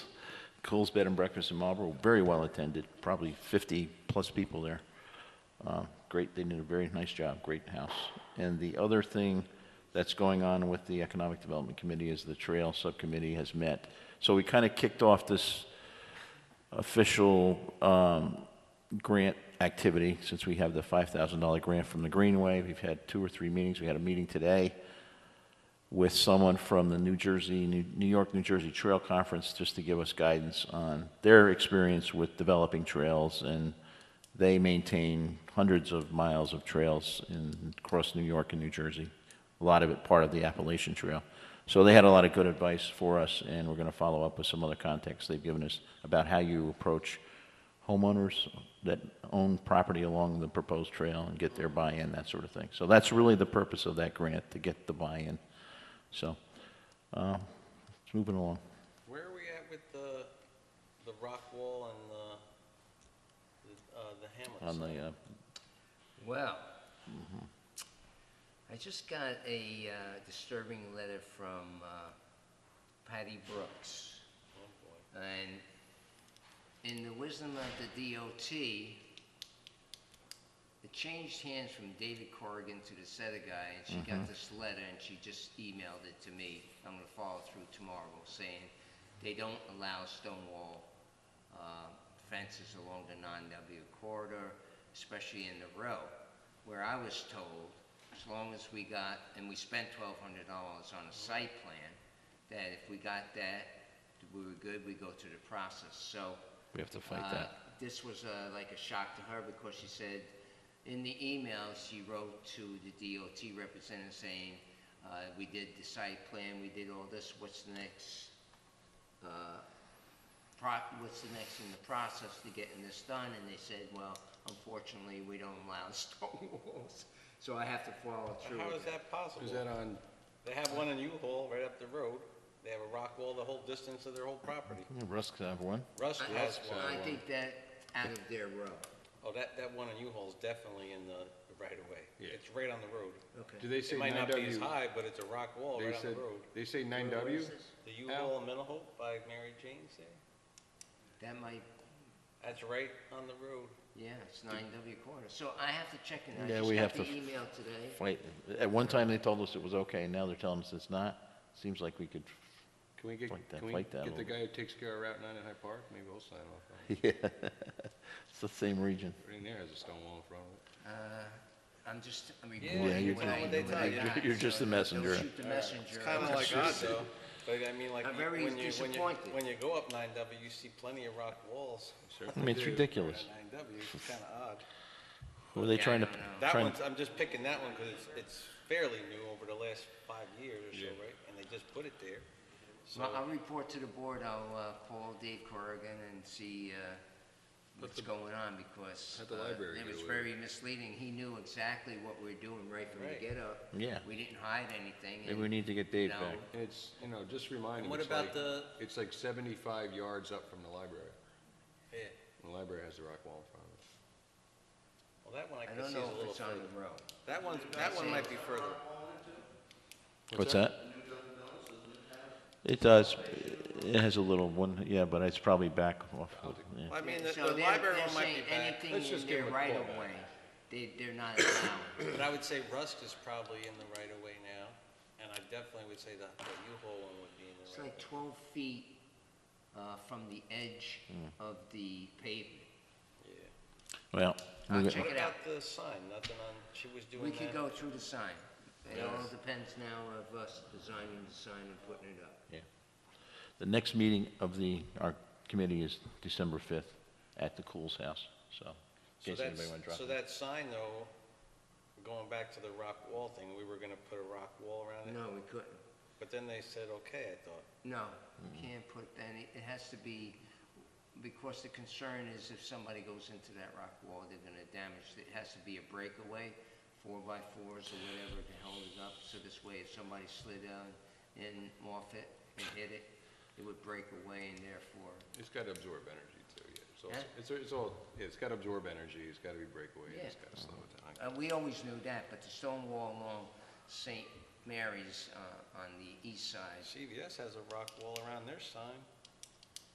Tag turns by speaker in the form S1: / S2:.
S1: Cool's Bed and Breakfast in Marlboro, very well attended, probably 50-plus people there. Uh, Great, they did a very nice job, great house. And the other thing that's going on with the Economic Development Committee is the Trail Subcommittee has met. So we kind of kicked off this official um, grant activity, since we have the $5,000 grant from the Greenway. We've had two or three meetings. We had a meeting today with someone from the New Jersey, New New York, New Jersey Trail Conference, just to give us guidance on their experience with developing trails, and they maintain hundreds of miles of trails in, across New York and New Jersey, a lot of it part of the Appalachian Trail. So they had a lot of good advice for us, and we're going to follow up with some other context they've given us about how you approach homeowners that own property along the proposed trail and get their buy-in, that sort of thing. So that's really the purpose of that grant, to get the buy-in. So, uh, it's moving along.
S2: Where are we at with the, the rock wall and the, the, uh, the hamlet
S1: On
S2: site?
S1: the, uh,
S3: Well, I just got a uh, disturbing letter from uh, Patty Brooks.
S2: Oh, boy.
S3: And in the wisdom of the DOT, it changed hands from David Corrigan to the Seta guy, and she got this letter, and she just emailed it to me. I'm gonna follow through tomorrow, saying they don't allow stone wall uh, fences along the non-W corridor, especially in the row, where I was told, as long as we got, and we spent twelve hundred dollars on a site plan, that if we got that, we were good, we go through the process. So,
S1: we have to fight
S3: uh,
S1: that.
S3: This was uh, like a shock to her because she said, in the email, she wrote to the DOT representative saying, uh, we did the site plan, we did all this, what's the next, uh, pro- what's the next in the process to getting this done? And they said, well, unfortunately, we don't allow stone walls. So I have to follow through
S2: How
S3: with
S2: is that
S3: that.
S2: possible?
S4: Is that on,
S2: They have one in U-Haul right up the road. They have a rock wall the whole distance of their whole property.
S1: Uh, Yeah, Russ could have one.
S2: Russ
S3: I-
S2: has
S3: I
S4: uh,
S2: one.
S3: think that out of their row.
S2: Oh, that, that one in U-Haul is definitely in the right of way.
S4: Yeah.
S2: It's right on the road.
S4: do
S3: Okay.
S4: they say
S2: It might
S4: nine
S2: not be as
S4: W?
S2: high, but it's a rock wall
S4: They
S2: right on
S4: said,
S2: the road.
S4: they say nine
S3: Where
S4: W?
S3: is this?
S2: The U-Haul in Middlehope by Mary Jane's there?
S3: That might
S2: That's right on the road.
S3: Yeah, it's nine W quarter, so I have to check it, I
S1: Yeah,
S3: just
S1: we
S3: got
S1: have
S3: the
S1: to-
S3: email today.
S1: Fight. At one time, they told us it was okay, now they're telling us it's not. Seems like we could,
S4: Can we get,
S1: Like that,
S4: can we
S1: like that a
S4: get the
S1: little
S4: guy who takes care of Route nine in High Park? Maybe we'll sign off on it.
S1: yeah, it's the same region.
S4: Everything there has a stone wall in front of
S3: Uh,
S4: it.
S3: I'm just, I'm
S2: Yeah,
S3: reporting
S1: you
S3: what
S1: know
S3: I
S2: what
S3: know
S2: they
S3: what
S2: tell
S3: I
S2: you.
S3: got.
S1: You're just
S3: so
S1: the
S3: don't-
S1: messenger.
S3: Don't shoot the messenger.
S2: It's kind of like us, though. But I mean, like,
S3: I'm
S2: you-
S3: very
S2: when you, when you,
S3: disappointed.
S2: when you go up 9W, you see plenty of rock walls.
S1: I mean, it's ridiculous.
S2: 9W, it's kind of odd.
S1: Who are they
S3: Yeah, I
S1: trying to,
S3: don't know.
S2: That
S1: trying,
S2: one's, I'm just picking that one because it's, it's fairly new over the last five years or so, right? And they just put it there. So,
S3: Well, I'll report to the board, I'll, uh, call Dave Corrigan and see, uh, what's going on, because.
S4: let the
S3: uh,
S4: library
S3: It
S4: get
S3: was
S4: away with
S3: very misleading, he knew exactly what we were doing right from the
S2: Right.
S3: get-up.
S1: Yeah.
S3: We didn't hide anything,
S1: maybe we
S3: and,
S1: need to get Dave
S3: No.
S1: back.
S4: And it's, you know, just remind
S2: And
S4: him.
S2: what
S4: it's
S2: about
S4: like-
S2: the-
S4: It's like seventy-five yards up from the library.
S2: yeah,
S4: And the library has the rock wall in front of it.
S2: well, that one I
S3: I
S2: can see
S3: don't
S2: is a
S3: know if
S2: little
S3: it's on
S2: further.
S3: the road.
S2: That one's, that one might be further.
S1: What's that? It does, it has a little one, yeah, but it's probably back off, yeah.
S2: Well, I mean, the
S3: So
S2: the
S3: they're-
S2: library
S3: they're
S2: one might be
S3: saying
S2: back,
S4: Let's
S3: Anything in
S4: just give
S3: their
S4: 'em a call
S3: right of
S4: back.
S3: way, they, they're not allowed.
S2: but I would say Rusk is probably in the right of way now. And I definitely would say that the U-Haul one would be in
S3: It's
S2: the right.
S3: like twelve feet uh, from the edge
S4: Hmm.
S3: of the pavement.
S2: Yeah.
S1: Well, we
S3: I'll
S1: got-
S3: check
S2: What
S3: it out.
S2: about the sign? Nothing on, she was doing
S3: We
S2: that.
S3: could go through the sign. It all
S2: Yes.
S3: depends now of us designing the sign and putting it up.
S1: the next meeting of the, our committee is December 5th at the Cool's House, so. in
S2: So
S1: case anybody wanna
S2: that's,
S1: drop
S2: so
S1: in.
S2: that sign though, going back to the rock wall thing, we were gonna put a rock wall around it,
S3: No, we couldn't.
S2: but then they said, okay, I thought.
S3: No, you can't put any, it has to be, because the concern is if somebody goes into that rock wall, they're gonna damage, it has to be a breakaway, four by fours or whatever to hold it up, so this way if somebody slid down and off it and hit it, it would break away and therefore
S4: It's gotta absorb energy too, yeah. It's all,
S3: Huh?
S4: it's, it's all, yeah, it's gotta absorb energy, it's gotta be breakaway, and it's
S3: Yeah.
S4: gotta slow it down.
S3: Uh, we always knew that, but the stone wall along St. Mary's, uh, on the east side,
S2: CVS has a rock wall around their sign.